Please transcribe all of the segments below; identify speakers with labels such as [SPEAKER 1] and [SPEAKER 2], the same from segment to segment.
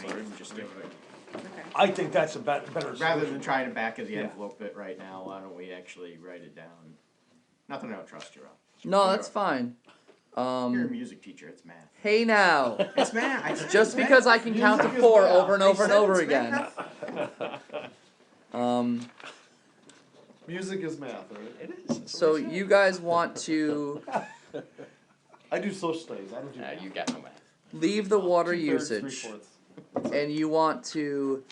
[SPEAKER 1] sorry, just do it.
[SPEAKER 2] okay.
[SPEAKER 3] I think that's a bet- better
[SPEAKER 1] Rather
[SPEAKER 3] solution.
[SPEAKER 1] than trying to back of the
[SPEAKER 3] Yeah.
[SPEAKER 1] envelope it right now, why don't we actually write it down? Not that I don't trust you, Rob.
[SPEAKER 4] No, that's fine.
[SPEAKER 1] You're a
[SPEAKER 4] Um,
[SPEAKER 1] music teacher, it's math.
[SPEAKER 4] hey now.
[SPEAKER 1] It's math. I said
[SPEAKER 4] Just
[SPEAKER 1] it's math.
[SPEAKER 4] because I can count to
[SPEAKER 1] Music is
[SPEAKER 4] four
[SPEAKER 1] math.
[SPEAKER 4] over and
[SPEAKER 1] I
[SPEAKER 4] over and
[SPEAKER 1] said
[SPEAKER 4] over
[SPEAKER 1] it's
[SPEAKER 4] again.
[SPEAKER 1] math.
[SPEAKER 4] Um,
[SPEAKER 5] Music is math, right?
[SPEAKER 1] It is. that's what
[SPEAKER 4] so
[SPEAKER 1] I said.
[SPEAKER 4] you guys want to
[SPEAKER 5] I do social studies. I don't do
[SPEAKER 1] Nah,
[SPEAKER 4] Uh,
[SPEAKER 5] math.
[SPEAKER 1] you got no math.
[SPEAKER 4] leave the water
[SPEAKER 5] Two-thirds,
[SPEAKER 4] usage
[SPEAKER 5] three-fourths.
[SPEAKER 4] and you want to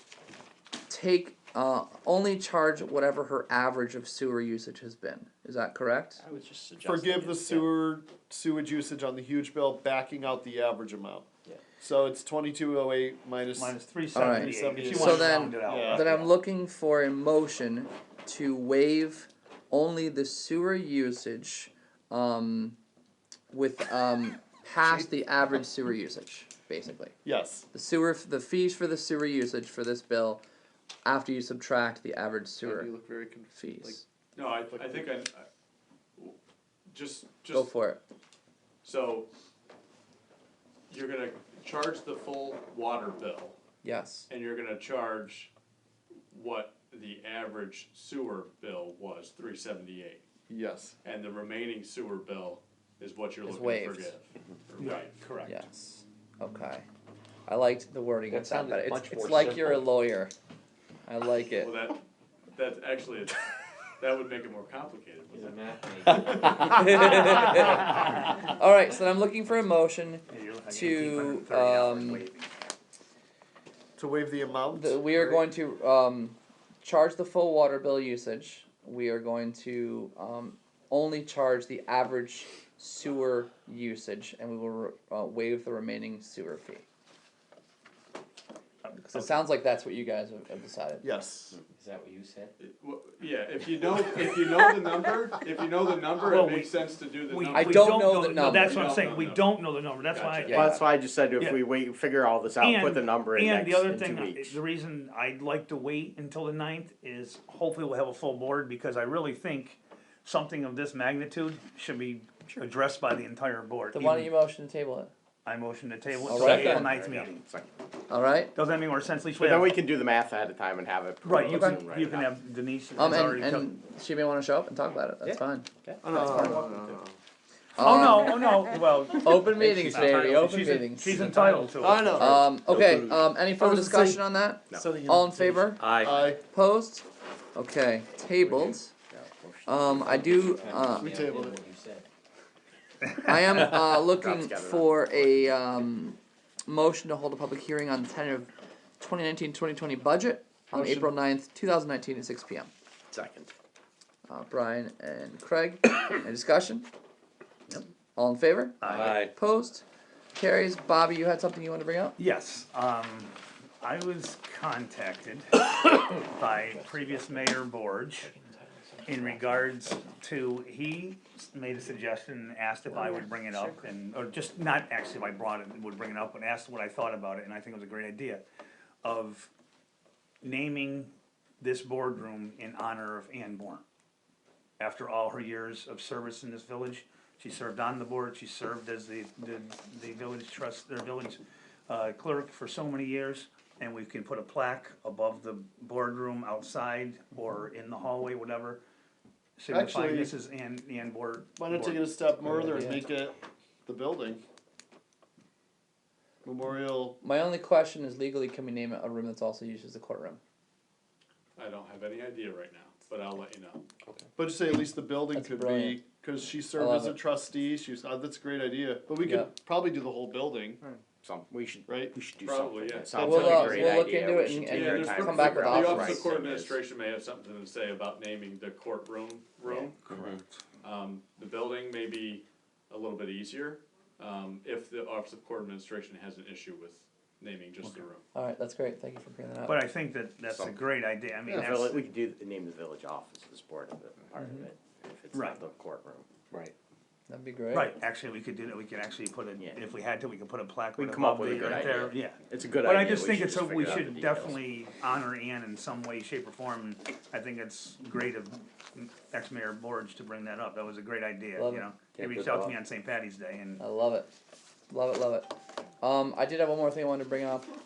[SPEAKER 4] take uh, only charge whatever her average of sewer usage has been. Is that correct?
[SPEAKER 1] I was just suggesting.
[SPEAKER 5] Forgive
[SPEAKER 1] it,
[SPEAKER 5] the
[SPEAKER 1] yeah.
[SPEAKER 5] sewer sewage usage on the huge bill, backing out the average amount.
[SPEAKER 1] Yeah.
[SPEAKER 5] So it's twenty-two oh eight minus.
[SPEAKER 3] Minus three
[SPEAKER 4] Alright.
[SPEAKER 3] seventy-eight, if you
[SPEAKER 5] So
[SPEAKER 3] wanna
[SPEAKER 4] then-
[SPEAKER 3] round it out.
[SPEAKER 5] Yeah.
[SPEAKER 4] Then I'm looking for a motion to waive only the sewer usage um, with um, past the average sewer usage, basically.
[SPEAKER 5] Yes.
[SPEAKER 4] The sewer, the fees for the sewer usage for this bill, after you subtract the average sewer
[SPEAKER 5] You look very confused.
[SPEAKER 4] fees.
[SPEAKER 6] No, I, I think I, I- just,
[SPEAKER 4] Go
[SPEAKER 6] just,
[SPEAKER 4] for it.
[SPEAKER 6] so, you're gonna charge the full water bill,
[SPEAKER 4] Yes.
[SPEAKER 6] and you're gonna charge what the average sewer bill was, three seventy-eight.
[SPEAKER 5] Yes.
[SPEAKER 6] And the remaining sewer bill is what you're
[SPEAKER 4] Is
[SPEAKER 6] looking to
[SPEAKER 4] waived.
[SPEAKER 6] forgive. Right, correct.
[SPEAKER 4] Yes. Okay. I liked the wording of
[SPEAKER 7] That
[SPEAKER 4] that
[SPEAKER 7] sounded
[SPEAKER 4] better. It's,
[SPEAKER 7] much
[SPEAKER 4] it's
[SPEAKER 7] more
[SPEAKER 4] like you're a
[SPEAKER 7] simple.
[SPEAKER 4] lawyer. I like it.
[SPEAKER 6] Well, that, that's actually, it's- that would make it more complicated,
[SPEAKER 7] He's
[SPEAKER 6] wouldn't
[SPEAKER 7] a
[SPEAKER 6] it?
[SPEAKER 7] math major.
[SPEAKER 4] All right, so then I'm looking for a motion
[SPEAKER 3] Yeah, you're looking at
[SPEAKER 4] To,
[SPEAKER 3] 1,830 hours
[SPEAKER 4] um,
[SPEAKER 3] waiving.
[SPEAKER 5] To waive the amount.
[SPEAKER 4] The, we are
[SPEAKER 5] right?
[SPEAKER 4] going to um, charge the full water bill usage. We are going to um, only charge the average sewer usage, and we will re- uh, waive the remaining sewer fee.
[SPEAKER 3] Um,
[SPEAKER 4] Because it sounds like that's what you guys have, have decided.
[SPEAKER 5] Yes.
[SPEAKER 7] Is that what you said?
[SPEAKER 6] Well, Yeah, if you know, if you know the number, if you know the number,
[SPEAKER 3] Well,
[SPEAKER 6] it
[SPEAKER 3] we-
[SPEAKER 6] makes sense to do the
[SPEAKER 3] We-
[SPEAKER 6] number.
[SPEAKER 4] I
[SPEAKER 3] we
[SPEAKER 4] don't know the
[SPEAKER 3] No, that's what I'm
[SPEAKER 6] number. We
[SPEAKER 3] saying,
[SPEAKER 6] don't
[SPEAKER 3] we
[SPEAKER 6] know.
[SPEAKER 3] don't know the number, that's why.
[SPEAKER 6] Gotcha.
[SPEAKER 4] Yeah.
[SPEAKER 8] Well, that's why I just said if
[SPEAKER 3] Yeah.
[SPEAKER 8] we wait, figure all this out, put
[SPEAKER 3] And-
[SPEAKER 8] the number in
[SPEAKER 3] And
[SPEAKER 8] next,
[SPEAKER 3] the other
[SPEAKER 8] in two
[SPEAKER 3] thing, I-
[SPEAKER 8] weeks.
[SPEAKER 3] the reason I'd like to wait until the ninth is hopefully we'll have a full board, because I really think something of this magnitude should be addressed by the entire board.
[SPEAKER 4] Then why don't
[SPEAKER 3] Even-
[SPEAKER 4] you motion to table it?
[SPEAKER 3] I motion to table it
[SPEAKER 4] All
[SPEAKER 3] till
[SPEAKER 4] right,
[SPEAKER 3] the April
[SPEAKER 4] then.
[SPEAKER 3] ninth meeting.
[SPEAKER 4] All right.
[SPEAKER 3] Does that make more sense, at least we
[SPEAKER 8] But then
[SPEAKER 3] have,
[SPEAKER 8] we can do the math ahead of time and have it.
[SPEAKER 3] right, you
[SPEAKER 8] proposed
[SPEAKER 3] can,
[SPEAKER 8] and
[SPEAKER 3] you
[SPEAKER 8] write
[SPEAKER 3] can
[SPEAKER 8] it up.
[SPEAKER 3] have Denise has
[SPEAKER 4] Um,
[SPEAKER 3] already
[SPEAKER 4] and,
[SPEAKER 3] took.
[SPEAKER 4] and she may want to show up and talk about it. That's
[SPEAKER 7] Yeah.
[SPEAKER 4] fine.
[SPEAKER 5] Oh, no, no, no, no, no.
[SPEAKER 3] Oh,
[SPEAKER 4] Um,
[SPEAKER 3] no, oh, no, well.
[SPEAKER 4] Open meetings, baby. Open
[SPEAKER 3] she's-
[SPEAKER 4] meetings.
[SPEAKER 3] She's entitled to it.
[SPEAKER 5] I know.
[SPEAKER 4] Um, okay. Um, any further
[SPEAKER 5] was just saying-
[SPEAKER 4] discussion on that?
[SPEAKER 8] No.
[SPEAKER 4] All in favor?
[SPEAKER 8] Aye.
[SPEAKER 5] I
[SPEAKER 4] Opposed? Okay, tabled. Um, I do, uh,
[SPEAKER 5] we tabled it.
[SPEAKER 7] What you said.
[SPEAKER 4] I am, uh, looking
[SPEAKER 8] together.
[SPEAKER 4] for a, um, motion to hold a public hearing on the tentative 2019-2020 budget on
[SPEAKER 5] Motion.
[SPEAKER 4] April 9th, two thousand nineteen at six P M.
[SPEAKER 8] Second.
[SPEAKER 4] Uh, Brian and Craig, any discussion? All in favor?
[SPEAKER 7] Aye.
[SPEAKER 4] Opposed? Carries. Bobby, you had something you wanted to bring up?
[SPEAKER 3] Yes, um, I was contacted by previous mayor Borge in regards to, he made a suggestion, asked if I would bring it up and, or just not actually if I brought it, would bring it up, but asked what I thought about it, and I think it was a great idea of naming this boardroom in honor of Ann Bourne. After all her years of service in this village, she served on the board, she served as the, the, the village trust, their village uh, clerk for so many years. And we can put a plaque above the boardroom outside or in the hallway, whatever, signifying
[SPEAKER 5] Actually-
[SPEAKER 3] this is Ann, Ann Board.
[SPEAKER 5] Why not take it
[SPEAKER 3] Board.
[SPEAKER 5] a step further and make it the building? Memorial.
[SPEAKER 4] My only question is legally, can we name a room that's also used as a courtroom?
[SPEAKER 6] I don't have any idea right now, but I'll let you know.
[SPEAKER 5] But just say at least the building
[SPEAKER 4] That's
[SPEAKER 5] could
[SPEAKER 4] brilliant.
[SPEAKER 5] be because she
[SPEAKER 4] I
[SPEAKER 5] served
[SPEAKER 4] love
[SPEAKER 5] as a
[SPEAKER 4] it.
[SPEAKER 5] trustee. She was. Uh, that's a great idea. But we could
[SPEAKER 4] Yeah.
[SPEAKER 5] probably do the whole building.
[SPEAKER 8] Some, we should,
[SPEAKER 5] Right.
[SPEAKER 8] we should do something.
[SPEAKER 6] Probably, yeah.
[SPEAKER 8] It sounds
[SPEAKER 4] We'll,
[SPEAKER 8] like
[SPEAKER 4] uh,
[SPEAKER 8] a great
[SPEAKER 4] we'll look
[SPEAKER 8] idea.
[SPEAKER 4] into
[SPEAKER 8] We
[SPEAKER 4] it
[SPEAKER 8] should
[SPEAKER 4] and-
[SPEAKER 8] take
[SPEAKER 4] and
[SPEAKER 8] our
[SPEAKER 6] Yeah, there's
[SPEAKER 8] time
[SPEAKER 6] pro-
[SPEAKER 4] come
[SPEAKER 8] to
[SPEAKER 4] back
[SPEAKER 8] figure
[SPEAKER 4] with
[SPEAKER 8] out what
[SPEAKER 6] The Office
[SPEAKER 4] options.
[SPEAKER 6] of
[SPEAKER 8] the
[SPEAKER 6] Court
[SPEAKER 8] right thing is.
[SPEAKER 6] Administration may have something to say about naming the courtroom room.
[SPEAKER 5] Correct.
[SPEAKER 6] Um, the building may be a little bit easier, um, if the Office of Court Administration has an issue with naming just the room.
[SPEAKER 4] All right, that's great. Thank you for bringing that up.
[SPEAKER 3] But I think that that's a
[SPEAKER 8] Some-
[SPEAKER 3] great idea, I mean,
[SPEAKER 8] The
[SPEAKER 3] that's,
[SPEAKER 8] village- We could do, the name of the village office is part of it, part of it, if it's
[SPEAKER 3] Mm-hmm. Right.
[SPEAKER 8] not the courtroom.
[SPEAKER 7] Right.
[SPEAKER 4] That'd be great.
[SPEAKER 3] right, actually, we could do that, we could actually put it,
[SPEAKER 8] Yeah.
[SPEAKER 3] if we had to, we could put a plaque
[SPEAKER 8] We'd
[SPEAKER 3] right
[SPEAKER 8] come up
[SPEAKER 3] above
[SPEAKER 8] with a
[SPEAKER 3] it
[SPEAKER 8] good
[SPEAKER 3] right there,
[SPEAKER 8] idea.
[SPEAKER 3] yeah.
[SPEAKER 8] It's a good idea.
[SPEAKER 3] But I just think
[SPEAKER 8] should
[SPEAKER 3] it's, a- we
[SPEAKER 8] figure out the
[SPEAKER 3] should
[SPEAKER 8] details.
[SPEAKER 3] definitely honor Ann in some way, shape, or form, and I think it's great of ex-mayor Borge to bring that up, that was a great idea,
[SPEAKER 4] Love
[SPEAKER 3] you
[SPEAKER 4] it.
[SPEAKER 3] know?
[SPEAKER 7] Yeah,
[SPEAKER 3] He reached
[SPEAKER 7] good
[SPEAKER 3] out to
[SPEAKER 7] thought.
[SPEAKER 3] me on St. Patty's Day, and
[SPEAKER 4] I love it. Love it, love it. Um, I did have one more thing I wanted to bring up.